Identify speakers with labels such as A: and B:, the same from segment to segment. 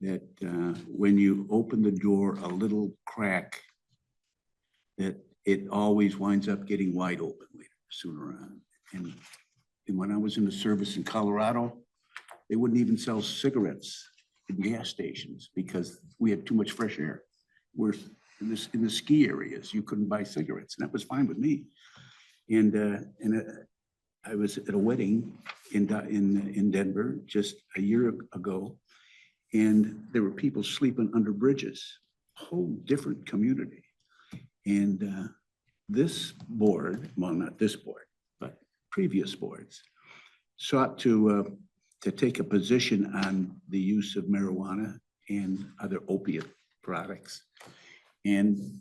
A: that uh, when you open the door a little crack, that it always winds up getting wide open later, sooner on. And, and when I was in the service in Colorado, they wouldn't even sell cigarettes in gas stations because we had too much fresh air. We're in this, in the ski areas, you couldn't buy cigarettes, and that was fine with me. And, uh, and uh, I was at a wedding in, Da- in, in Denver just a year ago. And there were people sleeping under bridges, whole different community. And uh, this board, well, not this board, but previous boards sought to, uh, to take a position on the use of marijuana and other opiate products. And,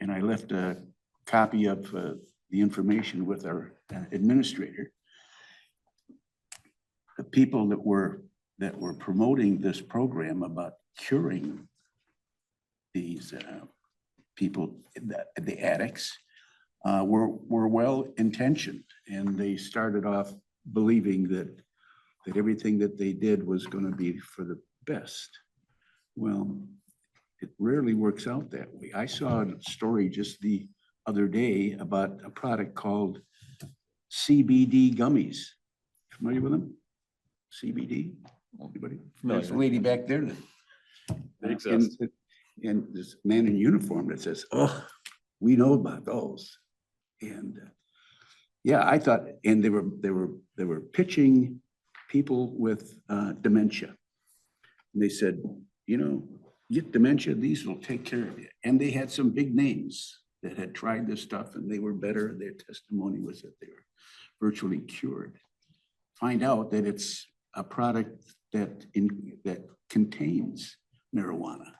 A: and I left a copy of uh, the information with our uh, administrator. The people that were, that were promoting this program about curing these uh, people, the the addicts, uh, were, were well intentioned. And they started off believing that, that everything that they did was going to be for the best. Well, it rarely works out that way. I saw a story just the other day about a product called CBD gummies. Familiar with them? CBD? Anybody? There's a
B: Familiar.
A: lady back there that.
B: They
A: Uh,
B: exist.
A: and- And this man in uniform that says, oh, we know about those. And uh, yeah, I thought, and they were, they were, they were pitching people with uh, dementia. And they said, you know, get dementia, these will take care of you. And they had some big names that had tried this stuff and they were better. Their testimony was that they were virtually cured. Find out that it's a product that in, that contains marijuana.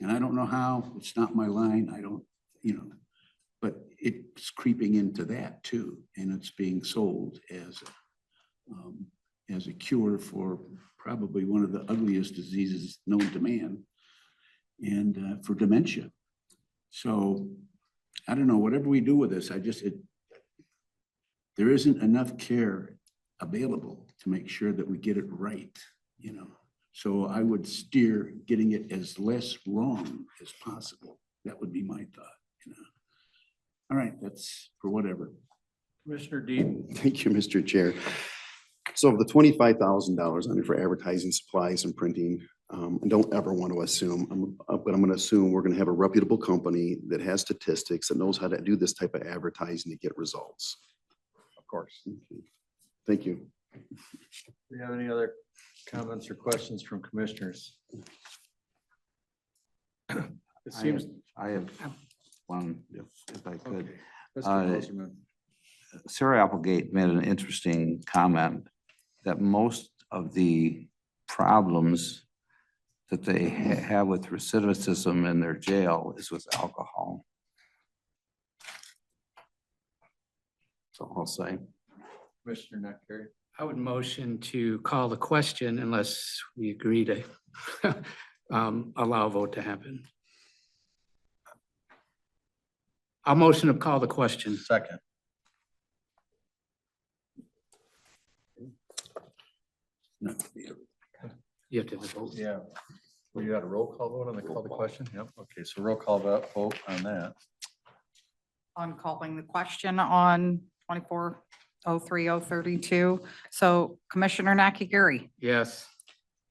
A: And I don't know how, it's not my line, I don't, you know, but it's creeping into that too. And it's being sold as um, as a cure for probably one of the ugliest diseases known to man and uh, for dementia. So I don't know, whatever we do with this, I just, it, there isn't enough care available to make sure that we get it right, you know? So I would steer getting it as less wrong as possible. That would be my thought, you know? All right, that's for whatever.
C: Commissioner Dean,
D: Thank you, Mr. Chair. So of the twenty-five thousand dollars on it for advertising supplies and printing, um, I don't ever want to assume, um, uh, but I'm gonna assume we're gonna have a reputable company that has statistics that knows how to do this type of advertising to get results.
B: Of course.
D: Thank you.
C: do you have any other comments or questions from commissioners? It
E: I have-
C: seems,
E: I have one, if if I could.
C: okay. Mr.
E: Uh,
C: Rosenbaum,
E: Sarah Applegate made an interesting comment that most of the problems that they ha- have with recidivism in their jail is with alcohol. So I'll say.
C: Commissioner Nakari,
F: I would motion to call the question unless we agree to um, allow a vote to happen. I'll motion to call the question.
C: second.
A: No,
F: You have to have a vote.
C: Yeah. Well, you had a roll call vote on the call the question? Yep, okay, so roll call vo- vote on that.
G: on calling the question on twenty-four oh three oh thirty-two. So Commissioner Nakagiri,
F: Yes.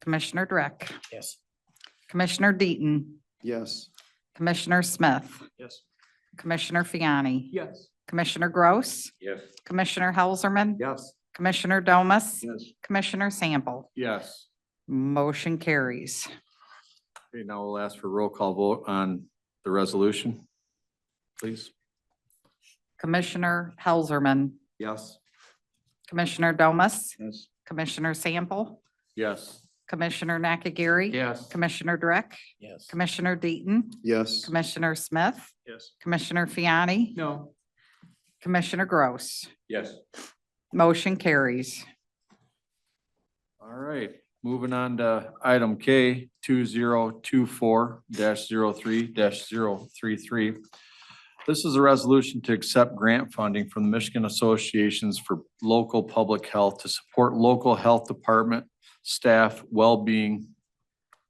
G: Commissioner Dreck,
F: Yes.
G: Commissioner Deaton,
D: Yes.
G: Commissioner Smith,
F: Yes.
G: Commissioner Fiani,
F: Yes.
G: Commissioner Gross,
B: Yes.
G: Commissioner Helserman,
E: Yes.
G: Commissioner Domas,
A: Yes.
G: Commissioner Sample.
C: Yes.
G: Motion carries.
C: Okay, now we'll ask for roll call vote on the resolution, please.
G: Commissioner Helserman,
E: Yes.
G: Commissioner Domas,
A: Yes.
G: Commissioner Sample,
C: Yes.
G: Commissioner Nakagiri.
F: Yes.
G: Commissioner Dreck,
C: Yes.
G: Commissioner Deaton,
D: Yes.
G: Commissioner Smith,
C: Yes.
G: Commissioner Fiani,
F: No.
G: Commissioner Gross.
C: Yes.
G: Motion carries.
C: All right, moving on to item K two zero two four 3 33 This is a resolution to accept grant funding from the Michigan Associations for Local Public Health to support local health department staff well-being